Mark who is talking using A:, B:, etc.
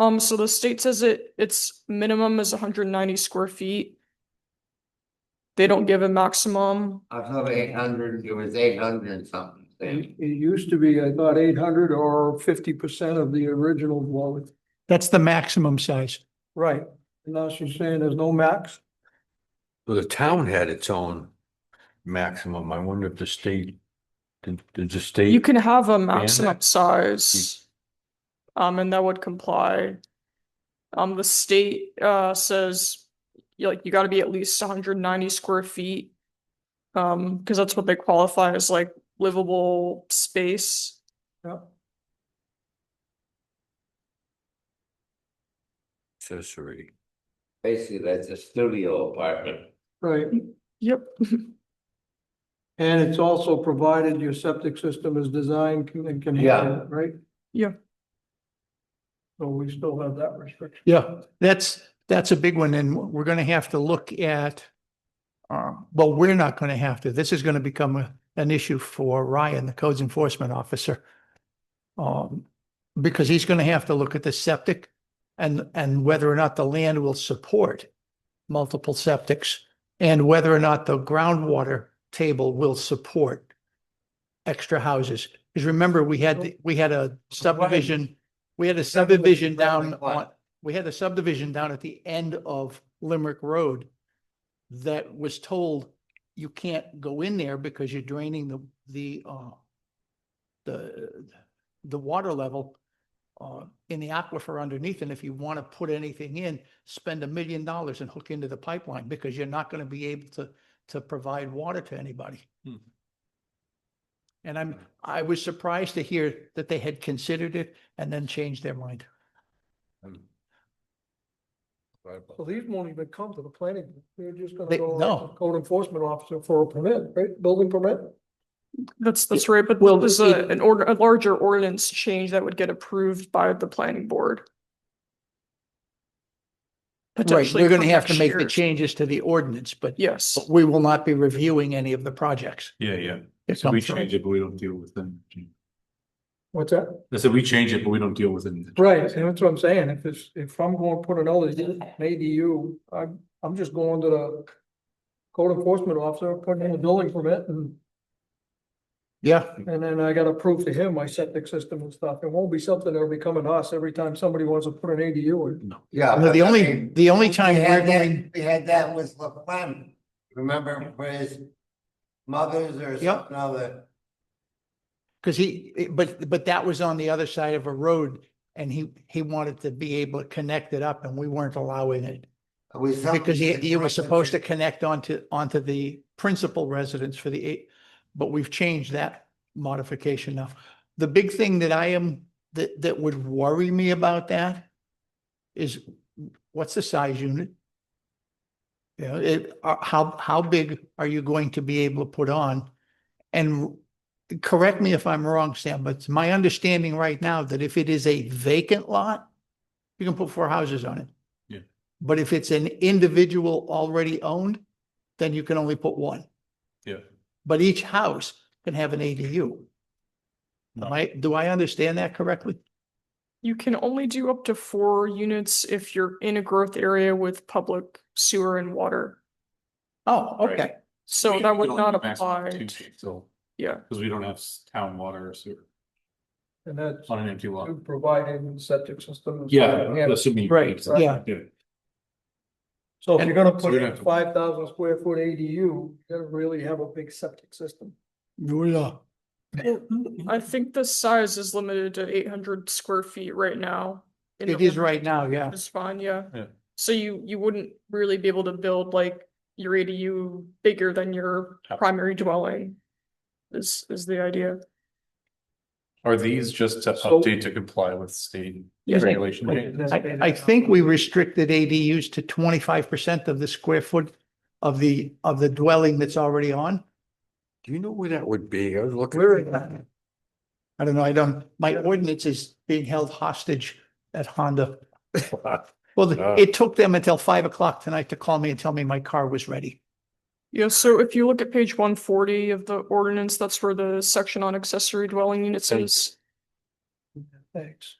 A: Um, so the state says it, its minimum is hundred and ninety square feet. They don't give a maximum.
B: I thought eight hundred, it was eight hundred and something.
C: Mm-hmm.
D: It, it used to be, I thought, eight hundred or fifty percent of the original dwelling.
C: That's the maximum size.
D: Right. And now she's saying there's no max.
E: Well, the town had its own maximum. I wonder if the state, did, did the state?
A: You can have a
E: that-
A: maximum size. Um, and that would comply. Um, the state, uh, says, you like, you gotta be at least hundred and ninety square feet. Um, because that's what they qualify as like livable space.
D: Yeah.
E: Accessory.
B: Basically, that's a studio apartment.
D: Right.
A: Yep.
D: And it's also provided your septic system is designed can- and can handle
B: Yeah.
D: it, right?
A: Yeah.
D: So we still have that restriction.
C: Yeah, that's, that's a big one and we're going to have to look at. Uh, well, we're not going to have to. This is going to become a- an issue for Ryan, the codes enforcement officer. Um, because he's going to have to look at the septic and, and whether or not the land will support multiple septics and whether or not the groundwater table will support extra houses. Because remember, we had, the- we had a subdivision, we had a subdivision down
B: Limerick what?
C: on, we had a subdivision down at the end of Limerick Road that was told you can't go in there because you're draining the, the, uh, the, the water level uh, in the aquifer underneath. And if you want to put anything in, spend a million dollars and hook into the pipeline because you're not going to be able to, to provide water to anybody.
E: Hmm.
C: And I'm, I was surprised to hear that they had considered it and then changed their mind.
E: um,
D: So these won't even come to the planning. board. They're just gonna
C: They-
D: go
C: no.
D: to the code enforcement officer for a permit, right? Building permit?
A: That's, that's right, but
C: well,
A: there's
C: it-
A: a, an order, a larger ordinance change that would get approved by the planning board.
C: Right,
A: Potentially
C: we're going
A: for
C: to have to
A: next
C: make the
A: year.
C: changes to the ordinance, but
A: Yes,
C: but we will not be reviewing any of the projects.
F: Yeah, yeah.
C: that
F: So
C: come
F: we
C: through.
F: change it, but we don't deal with them.
D: What's that?
F: I said, we change it, but we don't deal with it.
D: Right, and that's what I'm saying, if it's, if I'm going to put another ADU, I'm, I'm just going to the. Code enforcement officer, putting in a building permit and,
C: Yeah,
D: and then I gotta prove to him my septic system and stuff, it won't be something that'll be coming to us every time somebody wants to put an ADU in.
B: Yeah.
A: Uh,
C: no, the
B: but I
C: only,
B: mean,
C: the only time
B: We
C: we're
B: had
C: going,
B: that, we had that with LaFlemme. Remember for his mother's or
C: Yeah.
B: something other?
C: because he, it- but, but that was on the other side of a road and he, he wanted to be able to connect it up and we weren't allowing it. Because he, he was supposed to connect onto, onto the principal residence for the eight, but we've changed that modification now. The big thing that I am, that, that would worry me about that is what's the size unit? You know, it, uh, how, how big are you going to be able to put on? And correct me if I'm wrong, Sam, but it's my understanding right now that if it is a vacant lot, you can put four houses on it. But if it's an individual already owned, then you can only put one.
F: Yeah.
C: But each house can have an ADU. Am I, do I understand that correctly?
A: you can only do up to four units if you're in a growth area with public sewer and water.
C: Oh,
F: Right.
C: okay.
A: So
F: We
A: that
F: can
A: would
F: only
A: not
F: do maximum
A: apply.
F: two,
A: to-
F: So,
A: Yeah,
F: because we don't have s- town water or sewer
D: And that's
F: on an empty lot.
D: providing septic system. and stuff
F: Yeah,
D: and have it.
F: assuming.
C: Right, yeah.
D: So if you're gonna put
F: So you're
D: in a
F: gonna have to-
D: five thousand square foot ADU, you gotta really have a big septic system.
C: Yeah.
A: I think the size is limited to eight hundred square feet right now. in
C: It
A: the
C: is right
A: ordinance.
C: now, yeah.
A: It's fine, yeah.
F: Yeah.
A: So you, you wouldn't really be able to build like your ADU bigger than your
F: Yeah.
A: primary dwelling. Is, is the idea.
F: Are these just to
D: So-
F: update to comply with state
C: Yes, I-
F: regulation?
C: I, I think we restricted ADUs to twenty-five percent of the square foot of the, of the dwelling that's already on.
E: Do you know where that would be? I was looking.
C: Where is that? I don't know, I don't, my ordinance is being held hostage at Honda. Well, th-
E: Ah.
C: it took them until five o'clock tonight to call me and tell me my car was ready.
A: Yeah, so if you look at page one forty of the ordinance, that's where the section on accessory dwelling units
E: Thank you.
A: is.
D: Thanks.